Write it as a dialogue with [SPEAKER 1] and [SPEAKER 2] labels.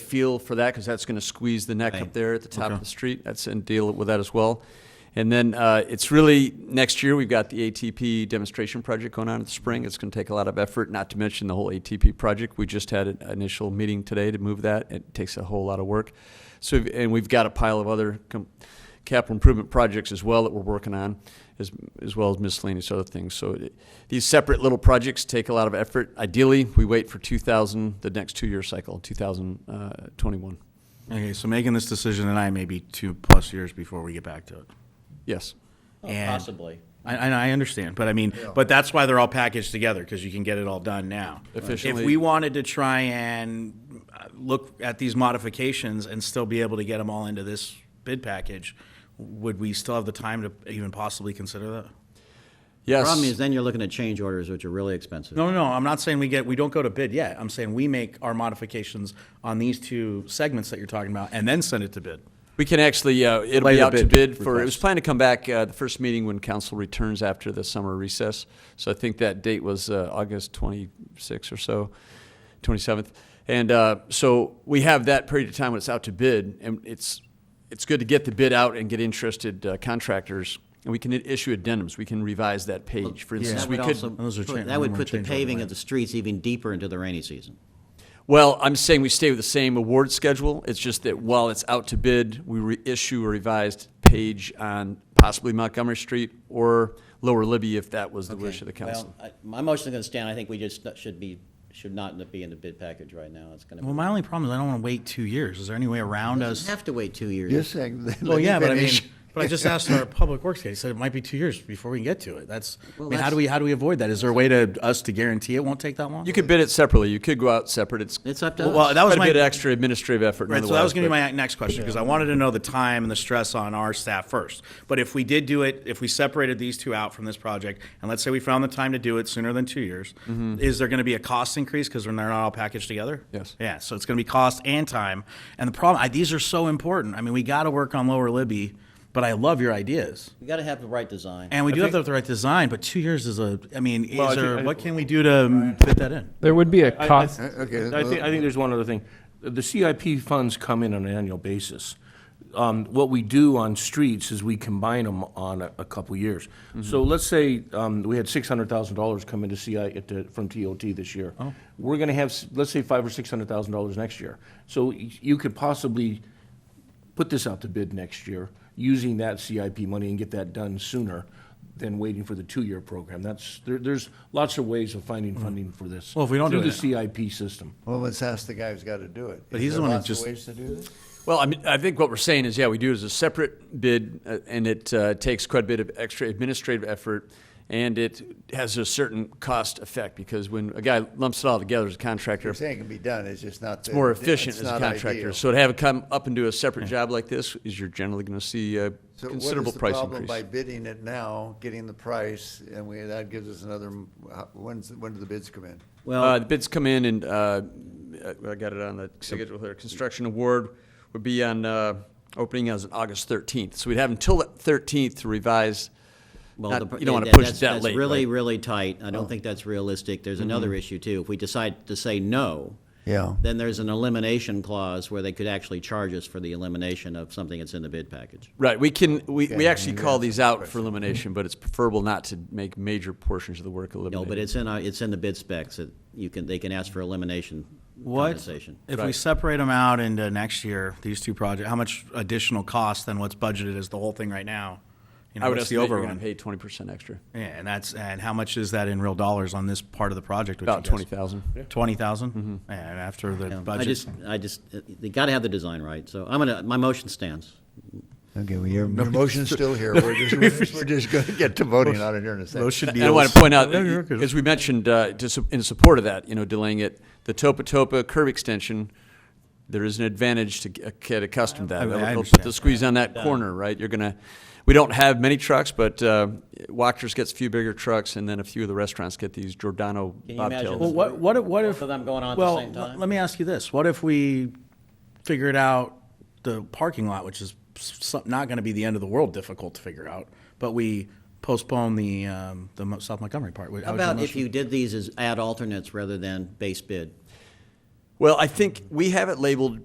[SPEAKER 1] feel for that because that's going to squeeze the neck up
[SPEAKER 2] Right.
[SPEAKER 1] there at the top
[SPEAKER 2] Okay.
[SPEAKER 1] of the street. That's and deal with that as well. And then uh, it's really next year we've got the ATP demonstration project going on in the spring. It's going to take a lot of effort, not to mention the whole ATP project. We just had an initial meeting today to move that. It takes a whole lot of work. So we've- and we've got a pile of other com- capital improvement projects as well that we're working on, as, as well as miscellaneous other things. So it- these separate little projects take a lot of effort. Ideally, we wait for 2000, the next two-year cycle, uh, 2021.
[SPEAKER 2] Okay, so making this decision tonight may be two plus years before we get back to it.
[SPEAKER 1] Yes.
[SPEAKER 2] And-
[SPEAKER 3] Possibly.
[SPEAKER 2] I, I, I understand, but I mean, but that's why they're all packaged together because you can get it all done now.
[SPEAKER 1] Efficiently.
[SPEAKER 2] If we wanted to try and uh, look at these modifications and still be able to get them all into this bid package, would we still have the time to even possibly consider that?
[SPEAKER 1] Yes.
[SPEAKER 3] Problem is, then you're looking at change orders, which are really expensive.
[SPEAKER 2] No, no, no. I'm not saying we get we don't go to bid yet. I'm saying we make our modifications on these two segments that you're talking about and then send it to bid.
[SPEAKER 1] We can actually, uh, it'll be
[SPEAKER 3] Later
[SPEAKER 1] out to
[SPEAKER 3] bid
[SPEAKER 1] bid for, it was
[SPEAKER 3] request.
[SPEAKER 1] planned to come back, uh, the first meeting when council returns after the summer recess. So I think that date was, uh, August twenty-sixth or so, twenty-seventh. And, uh, so we have that period of time when it's out to bid and it's, it's good to get the bid out and get interested uh, contractors. And we can i- issue addendums. We can revise that page. For instance,
[SPEAKER 3] That
[SPEAKER 1] we
[SPEAKER 3] would
[SPEAKER 1] could.
[SPEAKER 3] also
[SPEAKER 2] Those are
[SPEAKER 3] put-
[SPEAKER 2] change-
[SPEAKER 3] That would
[SPEAKER 2] more
[SPEAKER 3] put the
[SPEAKER 2] change order
[SPEAKER 3] paving
[SPEAKER 2] land.
[SPEAKER 3] of the streets even deeper into the rainy season.
[SPEAKER 1] Well, I'm saying we stay with the same award schedule. It's just that while it's out to bid, we reissue a revised page on possibly Montgomery Street or Lower Libby if that was the wish of the council.
[SPEAKER 3] Well, I- my motion is going to stand. I think we just not- should be, should not be in the bid package right now. It's going to.
[SPEAKER 2] Well, my only problem is I don't want to wait two years. Is there any way around us?
[SPEAKER 3] Have to wait two years.
[SPEAKER 4] You're saying. let
[SPEAKER 2] Well,
[SPEAKER 4] me
[SPEAKER 2] yeah, but I mean,
[SPEAKER 4] finish.
[SPEAKER 2] but I just asked our public works guy. He said it might be two years before we can get to it. That's. I
[SPEAKER 3] Well,
[SPEAKER 2] mean, how
[SPEAKER 3] that's-
[SPEAKER 2] do we how do we avoid that? Is there a way to us to guarantee it won't take that long?
[SPEAKER 1] You could bid it separately. You could go out separate. It's
[SPEAKER 3] It's up to
[SPEAKER 2] Well, well,
[SPEAKER 3] us.
[SPEAKER 2] that was
[SPEAKER 1] quite a
[SPEAKER 2] my
[SPEAKER 1] bit of extra administrative effort.
[SPEAKER 2] Right, so that was going to be
[SPEAKER 1] nonetheless,
[SPEAKER 2] my next question because I wanted to know the time and the stress on our staff first. But if we did do it, if we separated these two out from this project, and let's say we found the time to do it sooner than two years,
[SPEAKER 5] Mm-hmm.
[SPEAKER 2] is there going to be a cost increase because they're not all packaged together?
[SPEAKER 1] Yes.
[SPEAKER 2] Yeah, so it's going to be cost and time. And the problem, I, these are so important. I mean, we got to work on Lower Libby, but I love your ideas.
[SPEAKER 3] We got to have the right design.
[SPEAKER 2] And we do have the right design, but two years is a, I mean,
[SPEAKER 5] Well, I
[SPEAKER 2] is there,
[SPEAKER 5] think- I-
[SPEAKER 2] what can we do to fit that in?
[SPEAKER 6] There would be a
[SPEAKER 5] I- I-
[SPEAKER 6] cost.
[SPEAKER 4] Okay.
[SPEAKER 5] I think, I think there's one other thing. The CIP funds come in on an annual basis. Um, What we do on streets is we combine them on a, a couple years. So let's say um, we had six hundred thousand dollars come into CI, at the- from TOT this year. We're gonna have, s- let's say five or six hundred thousand dollars next year. So y- you could possibly put this out to bid next year, using that CIP money and get that done sooner than waiting for the two-year program. That's, there, there's lots of ways of finding funding for this.
[SPEAKER 2] Mm. Well, if we don't do
[SPEAKER 5] Through
[SPEAKER 2] that-
[SPEAKER 5] the CIP system.
[SPEAKER 4] Well, let's ask the guy who's got to do it.
[SPEAKER 2] But
[SPEAKER 4] Is
[SPEAKER 2] he's the
[SPEAKER 4] there
[SPEAKER 2] one who
[SPEAKER 4] lots of
[SPEAKER 2] just-
[SPEAKER 4] Ways to do this?
[SPEAKER 1] Well, I mean, I think what we're saying is, yeah, we do it as a separate bid, uh, and it uh, takes quite a bit of extra administrative effort, and it has a certain cost effect, because when a guy lumps it all together as a contractor,
[SPEAKER 4] You're saying it can be done, it's just not.
[SPEAKER 1] it's more efficient as a contractor. So to have it come up and do a separate job like this is you're generally going to see a considerable price
[SPEAKER 4] So what is the problem by
[SPEAKER 1] increase.
[SPEAKER 4] bidding it now, getting the price, and we, that gives us another, m- how- when's, when do the bids come in?
[SPEAKER 1] Uh,
[SPEAKER 3] Well,
[SPEAKER 1] the bids come in and, uh, I got it on the schedule here, construction award would be on, uh, opening as of August thirteenth. So we'd have until the thirteenth to revise,
[SPEAKER 3] well,
[SPEAKER 1] not-
[SPEAKER 3] the pr-
[SPEAKER 1] you don't want to
[SPEAKER 3] that- Oh.
[SPEAKER 1] push it
[SPEAKER 3] that's-
[SPEAKER 1] that late.
[SPEAKER 3] That's really,
[SPEAKER 1] right?
[SPEAKER 3] really tight. I don't think that's realistic. There's another issue too. If we decide to say no,
[SPEAKER 4] Yeah.
[SPEAKER 3] then there's an elimination clause where they could actually charge us for the elimination of something that's in the bid package.
[SPEAKER 1] Right, we can, we, we
[SPEAKER 4] Yeah,
[SPEAKER 1] actually
[SPEAKER 4] yeah,
[SPEAKER 1] call
[SPEAKER 4] that's
[SPEAKER 1] these out for elimination, but it's preferable not to make major portions of the work
[SPEAKER 3] No,
[SPEAKER 1] eliminated.
[SPEAKER 3] but it's in, our- it's in the bid specs that you can, they can ask for elimination
[SPEAKER 2] What,
[SPEAKER 3] compensation.
[SPEAKER 2] if we
[SPEAKER 1] Right.
[SPEAKER 2] separate them out into next year, these two projects, how much additional cost than what's budgeted is the whole thing right now? You know,
[SPEAKER 1] I would
[SPEAKER 2] what's the
[SPEAKER 1] estimate you're gonna
[SPEAKER 2] overrun?
[SPEAKER 1] pay twenty percent extra,
[SPEAKER 2] Yeah, and that's, and how much is that in real dollars on this part of the project? which
[SPEAKER 1] about
[SPEAKER 2] you guys-
[SPEAKER 1] twenty Mm-hmm. thousand.
[SPEAKER 2] Twenty thousand? And after the
[SPEAKER 3] I
[SPEAKER 2] budget,
[SPEAKER 3] just, I just, uh, they gotta have the design right, so I'm gonna, my motion stands.
[SPEAKER 4] Okay, well, your, your motion's still here, we're just, we're just gonna get to voting on it here in a second.
[SPEAKER 2] those should be.
[SPEAKER 1] And I want
[SPEAKER 2] those-
[SPEAKER 1] to point out,
[SPEAKER 2] Yeah, you're okay.
[SPEAKER 1] as we mentioned, uh, to, su- in support of that, you know, delaying it, the Topa Topa curb extension, there is an advantage to g- get accustomed to that.
[SPEAKER 2] I- I
[SPEAKER 1] It'll- it'll put
[SPEAKER 2] understand.
[SPEAKER 1] the squeeze on that corner, right? You're gonna, we don't have many trucks, but uh, Wachters gets a few bigger trucks, and then a few of the restaurants get these Giordano
[SPEAKER 3] Can you imagine
[SPEAKER 1] bobtails.
[SPEAKER 2] Well, what, what if, what if?
[SPEAKER 3] Both of them going on at the
[SPEAKER 2] well,
[SPEAKER 3] same time?
[SPEAKER 2] l- Let me ask you this, what if we figured out the parking lot, which is s- some- not gonna be the end of the world difficult to figure out, but we postpone the, um, the Mo- South Montgomery part?
[SPEAKER 3] How about if you did these as add alternates rather than base bid?
[SPEAKER 1] Well, I think we have it labeled